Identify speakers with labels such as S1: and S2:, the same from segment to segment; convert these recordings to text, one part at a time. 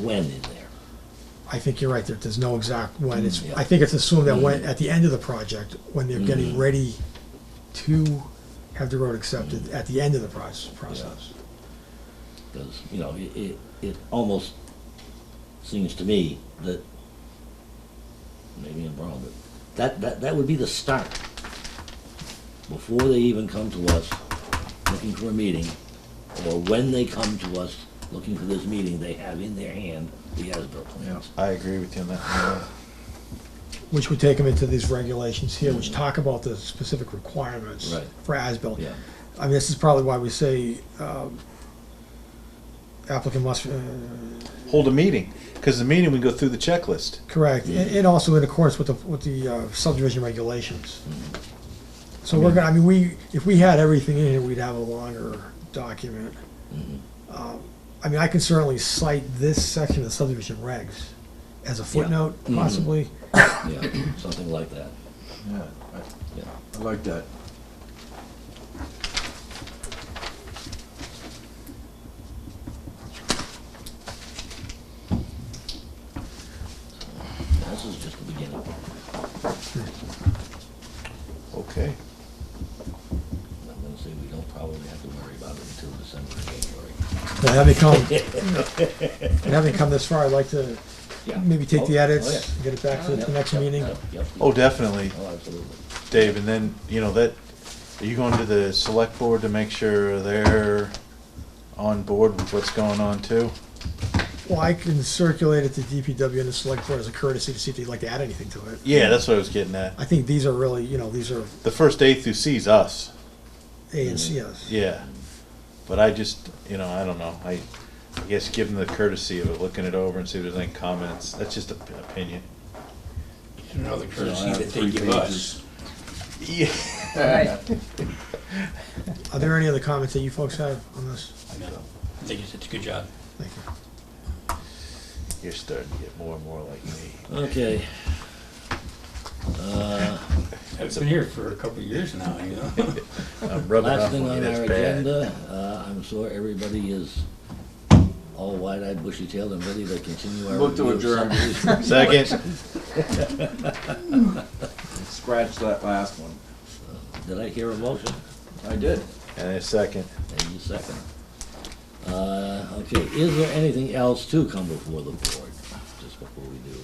S1: when in there.
S2: I think you're right, there, there's no exact when, it's,
S1: Mm, yeah. Mm.
S2: I think it's assumed that when, at the end of the project, when they're getting ready to have the road accepted,
S1: Mm.
S2: at the end of the proce- process.
S1: Because, you know, it, it, it almost seems to me that, maybe I'm wrong, but that, that, that would be the start. Before they even come to us looking for a meeting, or when they come to us looking for this meeting, they have in their hand the as-built plans.
S3: I agree with you on that.
S2: Which would take them into these regulations here, which talk about the specific requirements
S1: Mm. Right.
S2: for as-built.
S1: Yeah.
S2: I mean, this is probably why we say, um, applicant must, uh,
S3: Hold a meeting, because the meeting, we go through the checklist.
S2: correct, and, and also in accordance with the, with the uh, subdivision regulations. So we're gonna, I mean, we, if we had everything in here, we'd have a longer document.
S1: Mm-hmm.
S2: Um, I mean, I can certainly cite this section of subdivision regs as a footnote,
S1: Mhm.
S2: possibly.
S1: Yeah, something like that,
S3: Yeah,
S1: yeah.
S3: I like that.
S1: This is just the beginning.
S3: Okay.
S1: I'm gonna say we don't probably have to worry about it until December, or January.
S2: Now, having come, and having come this far, I'd like to
S1: Yeah.
S2: maybe take the
S1: Oh, oh,
S2: edits,
S1: yeah.
S2: get it back to the next
S1: Yep,
S2: meeting.
S1: yep, yep, yep.
S3: Oh, definitely,
S1: Oh, absolutely.
S3: Dave, and then, you know, that, are you going to the select board to make sure they're on board with what's going on too?
S2: Well, I can circulate it to DPW and the select board as a courtesy to see if they'd like to add anything to it.
S3: Yeah, that's what I was getting at.
S2: I think these are really, you know, these are
S3: The first A through C is us,
S2: A and Cs.
S3: yeah. But I just, you know, I don't know, I, I guess give them the courtesy of looking it over and see if there's any comments, that's just an opinion.
S4: You know, the
S5: I
S4: courtesy
S5: have
S4: that they
S5: three
S4: give us.
S3: Yeah.
S2: Are there any other comments that you folks have on this?
S4: I know. I think it's, it's a good job.
S2: Thank you.
S3: You're starting to get more and more like me.
S1: Okay. Uh,
S4: I've been here for a couple of years now, you know.
S3: I'm rubbing
S1: Last
S3: off
S1: thing
S3: on you,
S1: on our
S3: Uh, that's bad.
S1: agenda, uh, I'm sure everybody is all wide-eyed, bushy-tailed and ready to continue our
S5: Move to
S1: review of
S5: adjourn.
S1: subdivision.
S3: Second,
S5: Scratch that last one.
S1: Did I hear a motion?
S5: I did.
S3: and a second.
S1: And you second. Uh, okay, is there anything else to come before the board, just before we do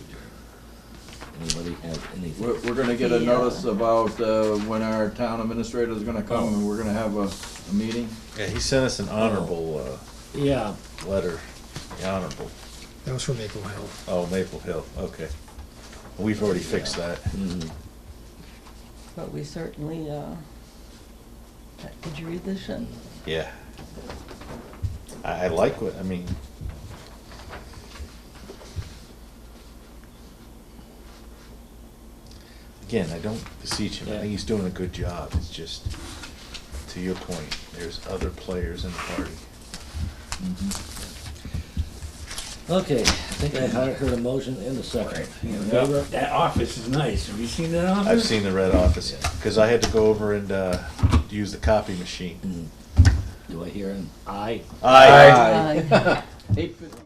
S1: adjourn? Anybody have anything?
S5: We're, we're gonna get a notice about, uh, when our town administrator's gonna come and we're gonna have a, a meeting.
S3: Yeah, he sent us an honorable uh,
S1: Yeah,
S3: letter. The honorable.
S2: That was from Maple Hill.
S3: Oh, Maple Hill. Okay. We've already fixed that.
S1: mhm.
S6: But we certainly, uh, did you read this shit?
S3: Yeah. I, I like what I mean. Again, I don't beseech him. I
S1: Yeah.
S3: think he's doing a good job. It's just, to your point, there's other players in the party.
S1: Okay, I think I heard heard a motion in a second.
S4: You
S1: In
S4: know,
S1: favor?
S4: That that office is nice. Have you seen that office?
S3: I've seen the red office because I had to go over and uh, use the copy machine.
S1: Do I hear an aye?
S3: Aye.
S6: Uh,
S5: Eight fifty.